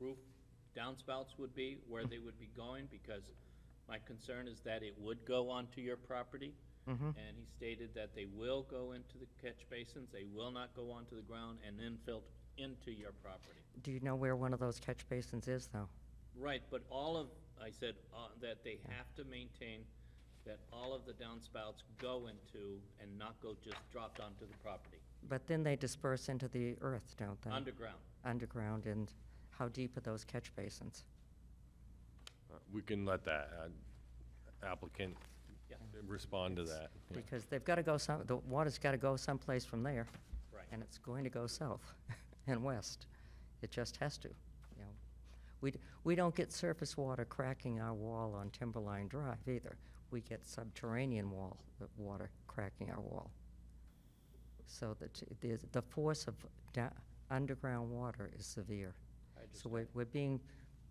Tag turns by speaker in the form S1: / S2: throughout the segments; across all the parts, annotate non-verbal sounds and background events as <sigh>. S1: roof downspouts would be, where they would be going, because my concern is that it would go onto your property. And he stated that they will go into the catch basins, they will not go onto the ground and then filter into your property.
S2: Do you know where one of those catch basins is, though?
S1: Right, but all of, I said, uh, that they have to maintain that all of the downspouts go into and not go just dropped onto the property,
S2: But then they disperse into the earth, don't they?
S1: underground.
S2: Underground, and how deep are those catch basins?
S3: Uh, We can let that uh, applicant
S1: Yeah.
S3: respond to that. yeah.
S2: Because they've got to go some, the water's got to go someplace from there.
S1: Right.
S2: And it's going to go south <laughs> and west. It just has to, you know. We, d- we don't get surface water cracking our wall on Timberline Drive either. We get subterranean wall, uh, water cracking our wall. So that, the, the force of da- underground water is severe.
S1: I
S2: So we're, we're being,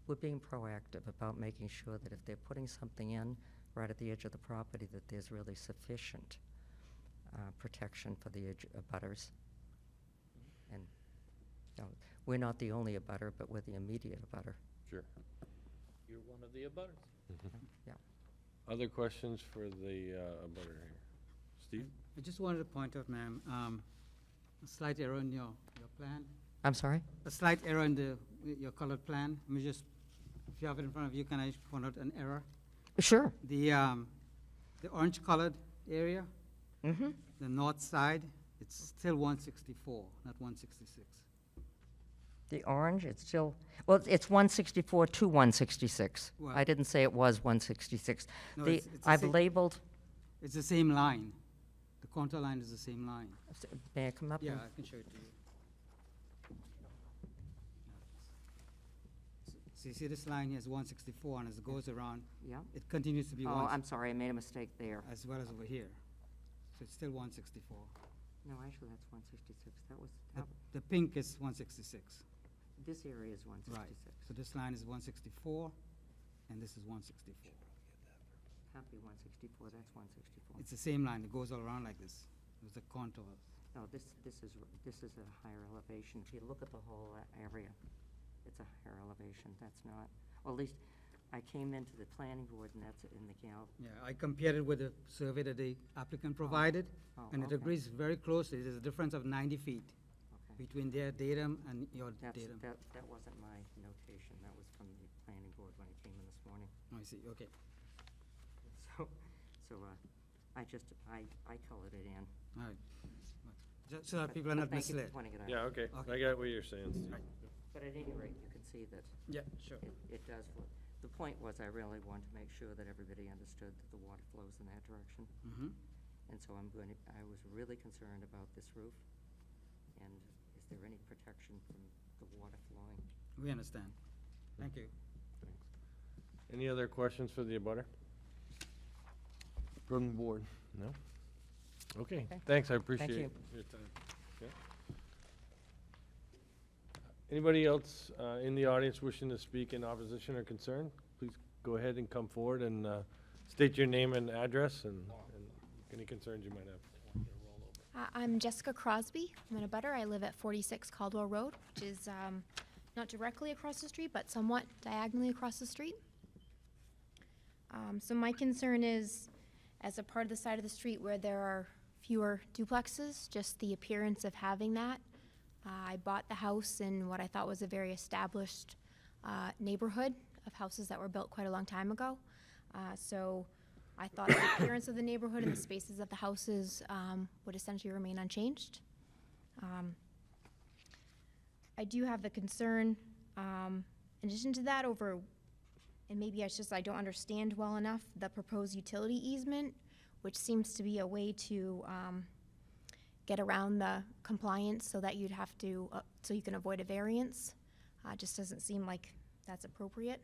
S2: we're being proactive about making sure that if they're putting something in right at the edge of the property, that there's really sufficient uh, protection for the edge abutters. And, you know, we're not the only abutter, but we're the immediate abutter,
S3: Sure.
S1: You're one of the abutters.
S2: yeah.
S3: Other questions for the uh, abutter here? Steve?
S4: I just wanted to point out, ma'am, um, a slight error in your, your plan,
S2: I'm sorry?
S4: a slight error in the, your colored plan. Let me just, if you have it in front of you, can I point out an error?
S2: Sure.
S4: The, um, the orange colored area,
S2: Mm-hmm.
S4: the north side, it's still one sixty-four, not one sixty-six.
S2: The orange, it's still, well, it's one sixty-four to one sixty-six. I
S4: Well-
S2: didn't say it was one sixty-six.
S4: No,
S2: The,
S4: it's- it's the
S2: I've
S4: same-
S2: labeled,
S4: It's the same line. The contour line is the same line.
S2: may I come up?
S4: Yeah,
S2: and-
S4: I can show it to you. So you see this line here is one sixty-four, and as it goes around,
S2: Yeah?
S4: it continues to be
S2: Oh,
S4: one
S2: I'm sorry, I made a mistake there.
S4: as well as over here. So it's still one sixty-four.
S2: No, actually, that's one sixty-six, that was,
S4: The,
S2: that-
S4: the pink is one sixty-six,
S2: this area is one
S4: right.
S2: sixty-six.
S4: So this line is one sixty-four, and this is one sixty-four.
S2: Can't be one sixty-four, that's one sixty-four.
S4: It's the same line, it goes all around like this, with the contour.
S2: No, this, this is, r- this is a higher elevation. If you look at the whole a- area, it's a higher elevation, that's not, well, at least, I came into the planning board and that's in the gal,
S4: Yeah, I compared it with the survey that the applicant provided,
S2: Oh,
S4: and it
S2: okay.
S4: agrees very closely, there's a difference of ninety feet
S2: okay.
S4: between their datum and your
S2: That's,
S4: datum.
S2: that, that wasn't my notation, that was from the planning board when I came in this morning. <laughs>
S4: Oh, I see, okay.
S2: So, so, uh, I just, I, I colored it in.
S4: All right. Just so that
S2: but-
S4: people are
S2: but
S4: not
S2: thank you for
S4: misled.
S2: pointing it out.
S3: Yeah, okay.
S4: Okay.
S3: I got what you're saying, Steve.
S4: Right.
S2: But at any rate, you can see that
S4: Yeah, sure.
S2: It, it does, flow. the point was I really wanted to make sure that everybody understood that the water flows in that direction.
S4: Mm-hmm.
S2: And so I'm going to, I was really concerned about this roof. And is there any protection from the water flowing?
S4: We understand. Thank you.
S3: Any other questions for the abutter? From the board? No? Okay, thanks, I appreciate your
S2: you.
S3: time. Yeah. Anybody else uh, in the audience wishing to speak in opposition or concern? Please go ahead and come forward and uh, state your name and address and and any concerns you might have.
S5: Uh, I'm Jessica Crosby. I'm in a butter. I live at 46 Caldwell Road, which is um, not directly across the street, but somewhat diagonally across the street. Um, so my concern is, as a part of the side of the street where there are fewer duplexes, just the appearance of having that. Uh, I bought the house in what I thought was a very established uh, neighborhood of houses that were built quite a long time ago. Uh, so I thought the appearance of the neighborhood and the spaces of the houses um, would essentially remain unchanged. Um, I do have the concern, um, in addition to that, over, and maybe it's just I don't understand well enough, the proposed utility easement, which seems to be a way to um, get around the compliance so that you'd have to, uh, so you can avoid a variance. Uh, Just doesn't seem like that's appropriate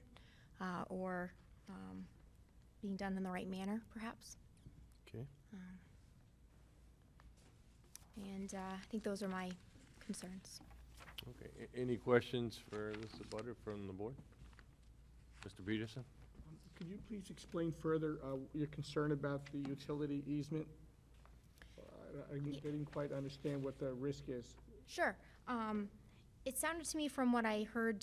S5: uh, or um, being done in the right manner, perhaps.
S3: Okay,
S5: And uh, I think those are my concerns.
S3: okay. A- Any questions for this abutter from the board? Mr. Peterson?
S6: Could you please explain further uh, your concern about the utility easement? Uh, I I didn't I didn't quite understand what the risk is.
S5: Sure. Um, It sounded to me from what I heard